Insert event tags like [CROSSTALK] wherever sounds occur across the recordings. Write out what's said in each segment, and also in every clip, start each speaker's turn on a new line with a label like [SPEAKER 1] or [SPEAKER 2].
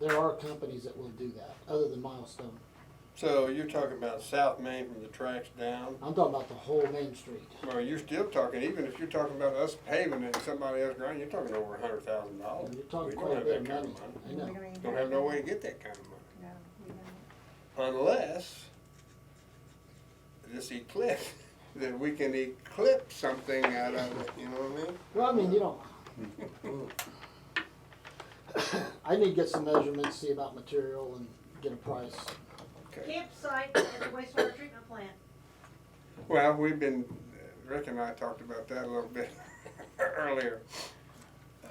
[SPEAKER 1] there are companies that will do that, other than Milestone.
[SPEAKER 2] So you're talking about South Main from the tracks down?
[SPEAKER 1] I'm talking about the whole main street.
[SPEAKER 2] Well, you're still talking, even if you're talking about us paving it and somebody else grinding, you're talking over a hundred thousand dollars.
[SPEAKER 1] You're talking
[SPEAKER 2] Oh.
[SPEAKER 1] quite a
[SPEAKER 2] We don't have
[SPEAKER 1] bit
[SPEAKER 2] that
[SPEAKER 1] of
[SPEAKER 2] kind
[SPEAKER 1] money.
[SPEAKER 2] of money.
[SPEAKER 1] I know.
[SPEAKER 2] Don't have no way to get that kind of money.
[SPEAKER 3] No, we don't.
[SPEAKER 2] unless this eclipse, [LAUGHS] that we can eclipse something out of it, you know what I mean?
[SPEAKER 1] Well, I mean, you don't. [COUGHS] I need to get some measurements, see about material and get a price.
[SPEAKER 2] Okay.
[SPEAKER 4] Campsite at the wastewater treatment plant.
[SPEAKER 2] Well, we've been, Rick and I talked about that a little bit [LAUGHS] earlier. Uh,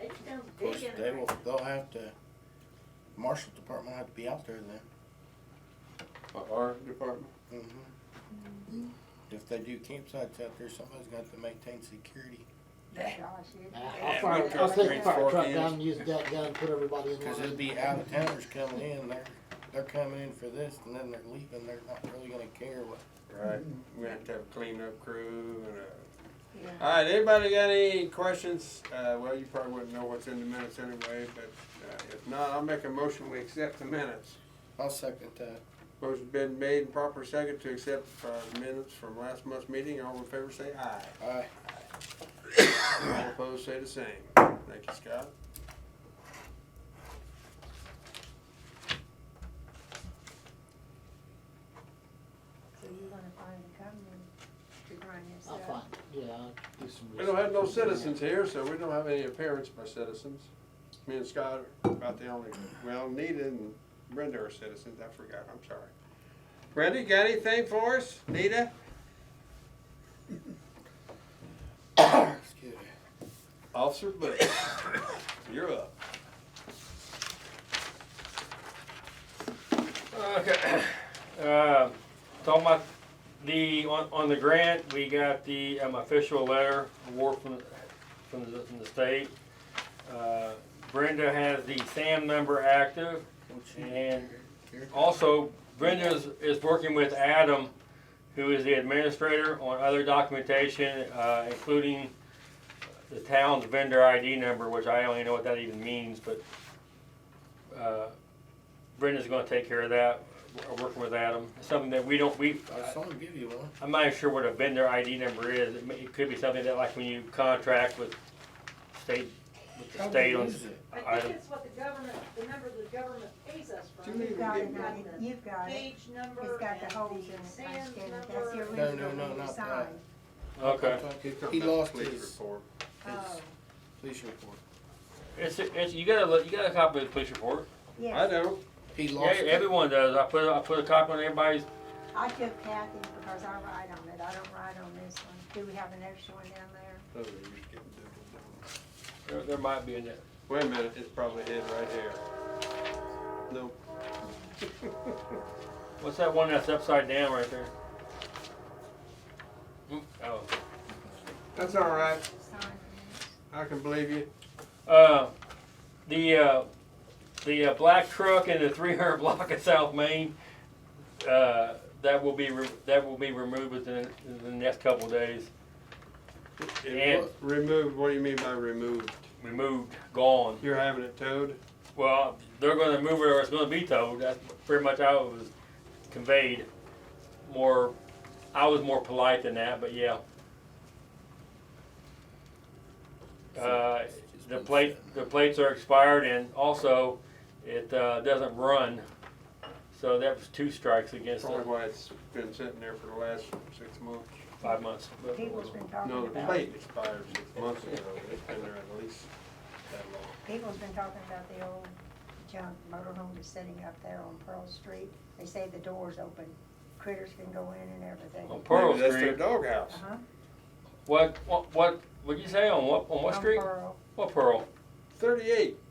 [SPEAKER 4] They just done
[SPEAKER 5] Of course,
[SPEAKER 4] digging
[SPEAKER 5] they
[SPEAKER 4] it.
[SPEAKER 5] will, they'll have to, marshal department will have to be out there then.
[SPEAKER 2] Our department,
[SPEAKER 5] If they do campsites out there, somebody's got to maintain security,
[SPEAKER 3] Gosh, you-
[SPEAKER 1] Nah,
[SPEAKER 2] Yeah,
[SPEAKER 1] I'll fire,
[SPEAKER 2] we've
[SPEAKER 1] I'll
[SPEAKER 2] got
[SPEAKER 1] take
[SPEAKER 2] three
[SPEAKER 1] a fire truck
[SPEAKER 2] fork
[SPEAKER 1] down
[SPEAKER 2] in.
[SPEAKER 1] and use that gun, put everybody
[SPEAKER 2] [LAUGHS]
[SPEAKER 1] in
[SPEAKER 5] cause it'd
[SPEAKER 1] line.
[SPEAKER 5] be out of towners coming in, they're, they're coming in for this and then they're leaving, they're not really gonna care what.
[SPEAKER 2] right, we have to have a cleanup crew and a.
[SPEAKER 3] yeah.
[SPEAKER 2] All right, anybody got any questions? Uh, well, you probably wouldn't know what's in the minutes anyway, but, uh, if not, I'll make a motion, we accept the minutes.
[SPEAKER 5] I'll second that.
[SPEAKER 2] Motion's been made and proper second to accept uh, minutes from last month's meeting. All in favor say aye.
[SPEAKER 5] Aye.
[SPEAKER 2] All opposed say the same. Thank you, Scott.
[SPEAKER 3] So you're gonna find a company to grind this
[SPEAKER 1] I'll
[SPEAKER 3] up?
[SPEAKER 1] find, it. yeah, I'll do some.
[SPEAKER 2] We don't have no
[SPEAKER 1] research.
[SPEAKER 2] citizens here, so we don't have any appearance by citizens. Me and Scott are about the only, well, Nita and Brenda are citizens. I forgot, I'm sorry. Brenda, you got anything for us? Nita?
[SPEAKER 5] Excuse me.
[SPEAKER 2] Officer Bush, you're up.
[SPEAKER 6] Okay, [COUGHS] uh, talking about the, on, on the grant, we got the, um, official letter award from, from the, from the state. Uh, Brenda has the SAM number active, and also Brenda is, is working with Adam, who is the administrator, on other documentation, uh, including the town's vendor ID number, which I don't even know what that even means, but, uh, Brenda's gonna take care of that, w- working with Adam. It's Something that we don't, we,
[SPEAKER 5] I saw him give you one.
[SPEAKER 6] I'm not even sure what a vendor ID number is. It may- It could be something that like when you contract with state, with the
[SPEAKER 5] How
[SPEAKER 6] state
[SPEAKER 5] big
[SPEAKER 6] on.
[SPEAKER 5] is it?
[SPEAKER 4] I
[SPEAKER 6] I-
[SPEAKER 4] think it's what the government, the number the government pays us
[SPEAKER 2] Do we-
[SPEAKER 4] from.
[SPEAKER 3] You've got it,
[SPEAKER 2] Give me
[SPEAKER 3] honey.
[SPEAKER 4] one.
[SPEAKER 3] you've got it.
[SPEAKER 4] Page number
[SPEAKER 3] It's got
[SPEAKER 4] and
[SPEAKER 3] the holes in
[SPEAKER 4] the
[SPEAKER 3] it, I
[SPEAKER 4] SAM's
[SPEAKER 3] scan it.
[SPEAKER 4] number.
[SPEAKER 3] That's the
[SPEAKER 5] No,
[SPEAKER 3] original
[SPEAKER 5] no, no,
[SPEAKER 3] one you
[SPEAKER 5] not
[SPEAKER 3] signed.
[SPEAKER 6] Okay.
[SPEAKER 5] He lost
[SPEAKER 2] Police
[SPEAKER 5] his,
[SPEAKER 2] report.
[SPEAKER 3] Oh,
[SPEAKER 5] his police report.
[SPEAKER 6] It's, it's, you gotta, look- you gotta copy the police report.
[SPEAKER 2] I
[SPEAKER 3] yes,
[SPEAKER 2] know.
[SPEAKER 5] He
[SPEAKER 6] Yeah,
[SPEAKER 5] lost it.
[SPEAKER 6] everyone does. I put, I put a copy on everybody's.
[SPEAKER 3] I took Kathy's because I write on it, I don't write on this one. Do we have an extra one down there?
[SPEAKER 2] Those are just Oh, getting different.
[SPEAKER 6] There, there might be in there.
[SPEAKER 2] Wait a minute, it's probably hid right here. Nope.
[SPEAKER 6] What's that one that's upside down right there? Mm, Oh.
[SPEAKER 2] That's all right.
[SPEAKER 3] Signed.
[SPEAKER 2] I can believe you.
[SPEAKER 6] Uh, the uh, the uh, black truck in the 300 [LAUGHS] block of South Main uh, that will be re- that will be removed within the next couple of days.
[SPEAKER 2] It wa- removed, what do you mean by removed?
[SPEAKER 6] Removed, gone.
[SPEAKER 2] You're having it towed?
[SPEAKER 6] Well, they're going to move it or it's going to be towed. That's pretty much how it was conveyed. More, I was more polite than that, but yeah. Uh, the plate, the plates are expired, and also it uh, doesn't run. So that was two strikes against
[SPEAKER 2] Probably
[SPEAKER 6] it,
[SPEAKER 2] why it's been sitting there for the last six months.
[SPEAKER 6] five months. But-
[SPEAKER 3] People's been
[SPEAKER 2] No,
[SPEAKER 3] talking
[SPEAKER 2] the
[SPEAKER 3] about,
[SPEAKER 2] plate expired six months ago. It's been there at least that long.
[SPEAKER 3] people's been talking about the old junk motorhome that's sitting up there on Pearl Street. They say the door's open, critters can go in and everything.
[SPEAKER 6] On Pearl
[SPEAKER 2] Maybe that's their
[SPEAKER 6] Street.
[SPEAKER 2] doghouse.
[SPEAKER 3] Uh-huh.
[SPEAKER 6] What, what, what, what'd you say on what, on what
[SPEAKER 3] On
[SPEAKER 6] street?
[SPEAKER 3] Pearl,
[SPEAKER 6] What Pearl?
[SPEAKER 2] Thirty-eight.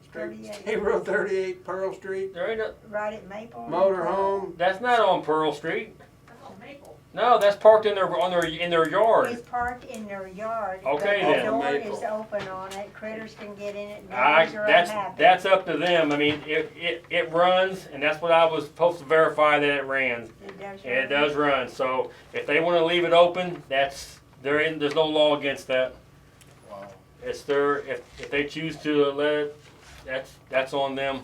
[SPEAKER 2] Street-
[SPEAKER 3] 38.
[SPEAKER 2] State Road thirty-eight, Pearl Street,
[SPEAKER 6] There ain't no,
[SPEAKER 3] Right at Maple. and Pearl.
[SPEAKER 2] motorhome.
[SPEAKER 6] that's not on Pearl Street.
[SPEAKER 4] That's on Maple.
[SPEAKER 6] No, that's parked in their, on their, in their yard.
[SPEAKER 3] It's parked in their yard.
[SPEAKER 6] Okay,
[SPEAKER 2] then.
[SPEAKER 3] The
[SPEAKER 2] Maple.
[SPEAKER 3] door is open on it, critters can get in it,
[SPEAKER 6] I,
[SPEAKER 3] neighbors are
[SPEAKER 6] that's,
[SPEAKER 3] unhappy.
[SPEAKER 6] that's up to them. I mean, it, it, it runs, and that's what I was supposed to verify that it ran.
[SPEAKER 3] It does.
[SPEAKER 6] And it does run, so if they wanna leave it open, that's, there ain't, there's no law against that.
[SPEAKER 5] Wow.
[SPEAKER 6] It's their, if, if they choose to let it, that's, that's on them.